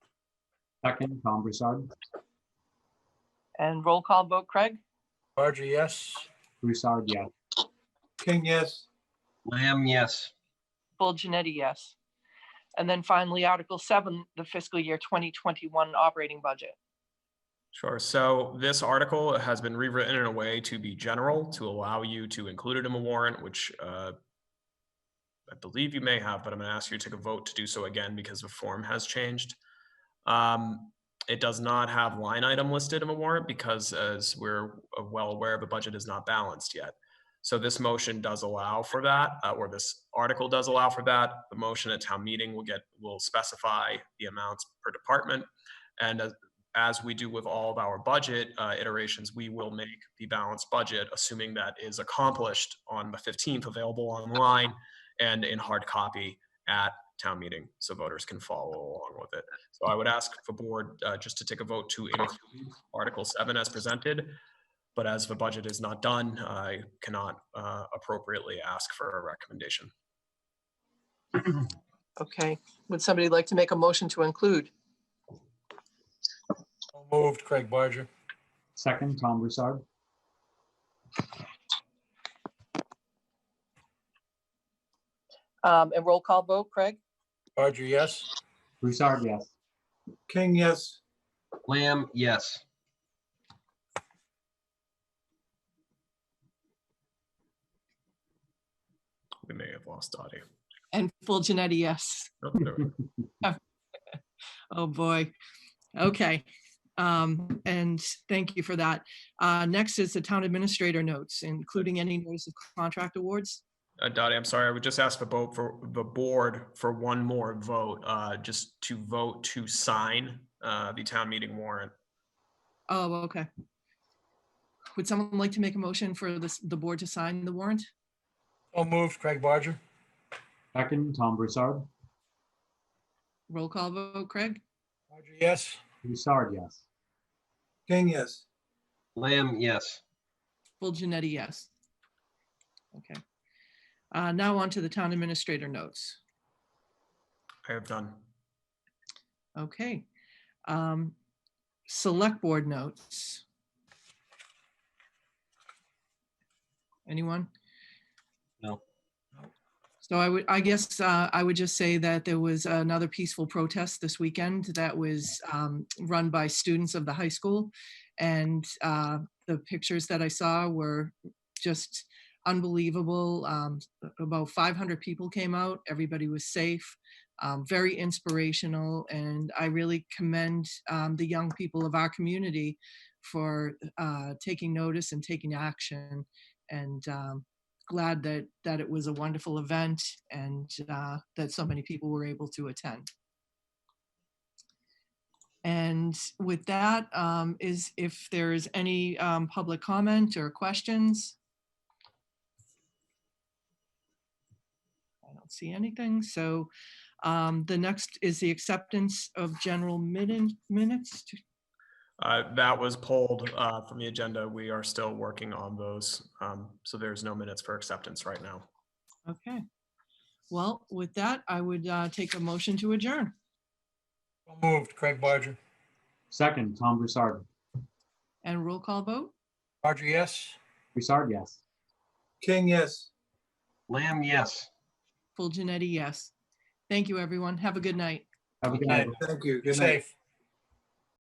Second, Tom Broussard. And roll call vote, Craig? Barger, yes. Broussard, yes. King, yes. Lamb, yes. Full Janetti, yes. And then finally, Article seven, the fiscal year twenty twenty-one operating budget. Sure. So this article has been rewritten in a way to be general, to allow you to include it in a warrant, which uh, I believe you may have, but I'm going to ask you to take a vote to do so again because the form has changed. Um, It does not have line item listed in a warrant because as we're uh, well aware, the budget is not balanced yet. So this motion does allow for that, uh, or this article does allow for that. The motion at town meeting will get, will specify the amounts per department. And as as we do with all of our budget uh, iterations, we will make the balanced budget, assuming that is accomplished on the 15th, available online and in hard copy at town meeting, so voters can follow along with it. So I would ask the board uh, just to take a vote to include Article 7 as presented. But as the budget is not done, I cannot uh, appropriately ask for a recommendation. Okay, would somebody like to make a motion to include? So Moved, Craig Barger. Second, Tom Broussard. Um, and roll call vote, Craig? Barger, yes. Broussard, yes. King, yes. Lamb, yes. We may have lost Dottie. And full Janetti, yes. Oh, there we go. Oh, boy. Okay. Um, and thank you for that. Uh, next is the town administrator notes, including any notice of contract awards. Uh, Dottie, I'm sorry, I would just ask the vote for the board for one more vote, uh, just to vote to sign, uh, the town meeting warrant. Oh, okay. Would someone like to make a motion for this, the board to sign the warrant? So moved, Craig Barger. Second, Tom Broussard. Roll call vote, Craig? Barger, yes. Broussard, yes. King, yes. Lamb, yes. Full Janetti, yes. Okay. Uh, now on to the town administrator notes. I have done. Okay. Um, Select board notes. Anyone? No. So I would, I guess uh, I would just say that there was another peaceful protest this weekend that was um, run by students of the high school. And uh, the pictures that I saw were just unbelievable. Um, About 500 people came out. Everybody was safe um, very inspirational. And I really commend um, the young people of our community for uh, taking notice and taking action. And um, glad that that it was a wonderful event and uh, that so many people were able to attend. And with that, um, is if there is any um, public comment or questions. I don't see anything. So um, The next is the acceptance of general minute- minutes. Uh, that was pulled, uh, from the agenda. We are still working on those. Um, so there's no minutes for acceptance right now. Okay. Well, with that, I would uh, take a motion to adjourn. So Moved, Craig Barger. Second, Tom Broussard. And roll call vote? Barger, yes. Broussard, yes. King, yes. Lamb, yes. Full Janetti, yes. Thank you, everyone. Have a good night. Have a good night. Thank you. Good night. Safe.